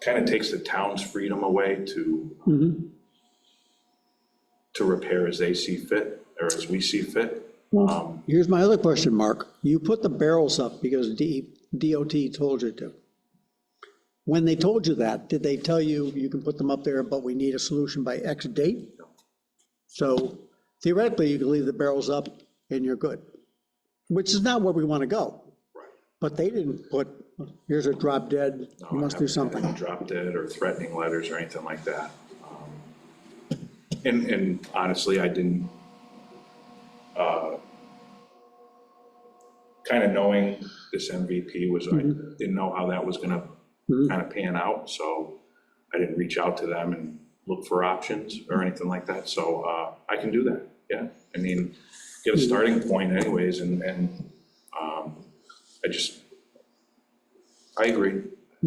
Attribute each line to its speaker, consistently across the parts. Speaker 1: kind of takes the town's freedom away to,
Speaker 2: Mm-hmm.
Speaker 1: to repair as they see fit, or as we see fit. Um,
Speaker 2: Here's my other question, Mark. You put the barrels up because D- DOT told you to. When they told you that, did they tell you, you can put them up there, but we need a solution by X date? So theoretically, you can leave the barrels up and you're good, which is not where we want to go. But they didn't put, here's a drop dead, you must do something.
Speaker 1: Drop dead or threatening letters or anything like that. Um, And, and honestly, I didn't, uh, kind of knowing this MVP was, I
Speaker 2: Mm-hmm.
Speaker 1: didn't know how that was gonna kind of pan out, so I didn't reach out to them and look for options or anything like that, so, uh, I can do that, yeah. I mean, get a starting point anyways, and, and, um, I just, I agree.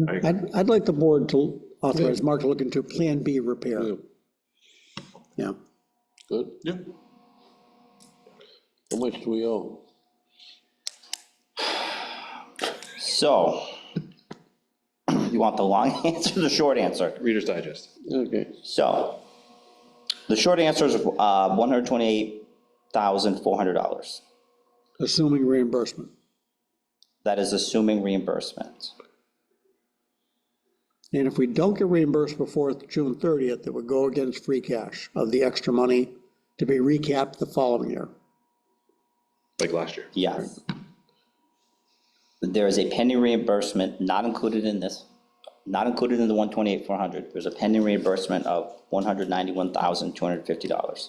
Speaker 1: I agree.
Speaker 2: I'd, I'd like the board to authorize Mark to look into Plan B repair. Yeah.
Speaker 3: Good? Yeah. How much do we owe?
Speaker 4: So, you want the long answer or the short answer?
Speaker 5: Reader's Digest.
Speaker 3: Okay,
Speaker 4: So, the short answer is uh, $128,400.
Speaker 2: Assuming reimbursement.
Speaker 4: That is assuming reimbursement.
Speaker 2: And if we don't get reimbursed before June 30th, it would go against free cash of the extra money to be recapped the following year.
Speaker 5: like last year.
Speaker 4: Yes. There is a pending reimbursement not included in this, not included in the one twenty-eight, four hundred. There's a pending reimbursement of one hundred ninety-one thousand, two hundred fifty dollars.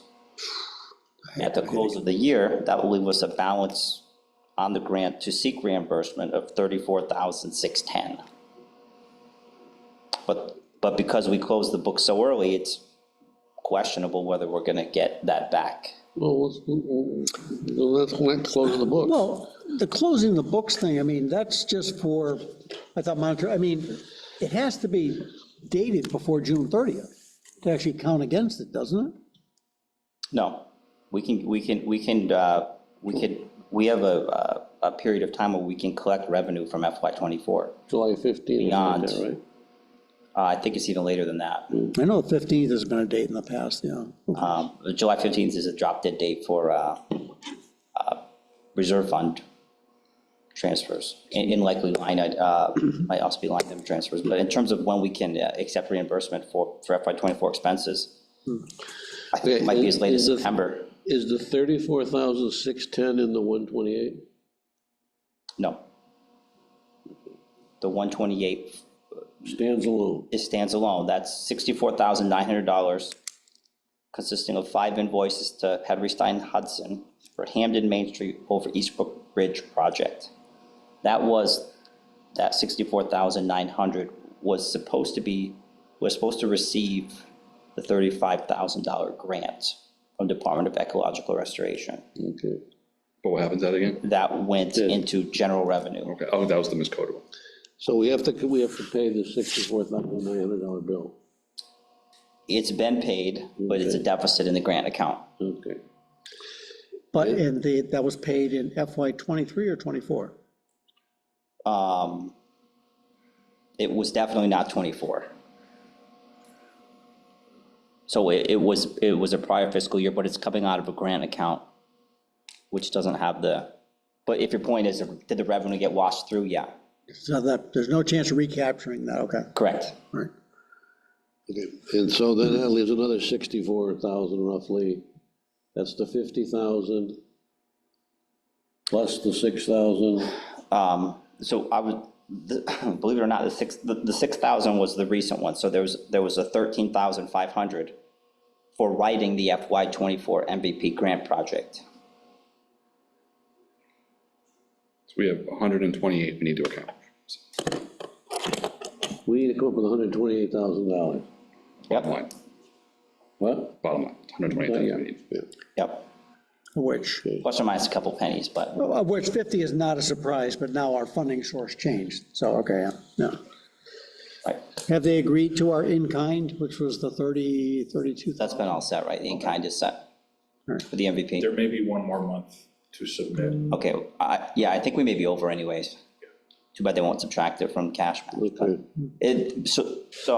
Speaker 4: At the close of the year, that will leave us a balance on the grant to seek reimbursement of thirty-four thousand, six ten. But, but because we closed the book so early, it's questionable whether we're gonna get that back.
Speaker 3: well, let's, well, let's let close the book.
Speaker 2: Well, the closing the books thing, I mean, that's just for, I thought monitor, I mean, it has to be dated before June 30th to actually count against it, doesn't it?
Speaker 4: No, we can, we can, we can, uh, we could, we have a, a- a period of time where we can collect revenue from FY '24.
Speaker 3: July 15,
Speaker 4: Beyond.
Speaker 3: or something like that, right?
Speaker 4: Uh, I think it's even later than that.
Speaker 2: I know the 15th has been a date in the past, yeah.
Speaker 4: Um, July 15th is a drop dead date for uh, uh, reserve fund transfers, in in likely line, uh, might also be line item transfers. But in terms of when we can uh, accept reimbursement for, for FY '24 expenses, I think it might be as late as
Speaker 3: Is the-
Speaker 4: September.
Speaker 3: Is the 34,610 in the 128?
Speaker 4: No. The 128
Speaker 3: Stands alone.
Speaker 4: it stands alone. That's sixty-four thousand nine hundred dollars, consisting of five invoices to Henry Stein Hudson for Hamden Main Street over Eastbrook Bridge project. That was, that sixty-four thousand nine hundred was supposed to be, was supposed to receive the thirty-five thousand dollar grant from Department of Ecological Restoration.
Speaker 3: Okay.
Speaker 5: But what happens that again?
Speaker 4: That went into general revenue.
Speaker 5: Okay, oh, that was the miscodable.
Speaker 3: So we have to, we have to pay the $64,900 bill.
Speaker 4: It's been paid, but it's a deficit in the grant account.
Speaker 3: Okay.
Speaker 2: But, and the, that was paid in FY '23 or '24?
Speaker 4: um, it was definitely not 24. So it, it was, it was a prior fiscal year, but it's coming out of a grant account, which doesn't have the, but if your point is, did the revenue get washed through? Yeah,
Speaker 2: So that, there's no chance of recapturing that, okay,
Speaker 4: correct.
Speaker 2: all right.
Speaker 3: Okay, And so then that leaves another sixty-four thousand roughly. That's the fifty thousand plus the six thousand.
Speaker 4: Um, so I would, the- believe it or not, the six, the, the 6,000 was the recent one. So there was, there was a 13,500 for writing the FY '24 MVP grant project.
Speaker 5: So we have 128 we need to account.
Speaker 3: We need to come up with hundred and twenty-eight thousand dollars.
Speaker 5: Bottom line,
Speaker 3: What?
Speaker 5: bottom line, 128,000 we need.
Speaker 3: Yeah.
Speaker 4: Yep,
Speaker 2: Which,
Speaker 4: plus or minus a couple pennies, but.
Speaker 2: of which 50 is not a surprise, but now our funding source changed, so, okay, yeah. no.
Speaker 4: Right,
Speaker 2: Have they agreed to our in-kind, which was the 30, 32?
Speaker 4: that's been all set, right? The in-kind is set
Speaker 2: Alright.
Speaker 4: for the MVP.
Speaker 1: There may be one more month to submit.
Speaker 4: Okay, I, yeah, I think we may be over anyways. Too bad they won't subtract it from cash. back.
Speaker 3: Okay.
Speaker 4: It, so, so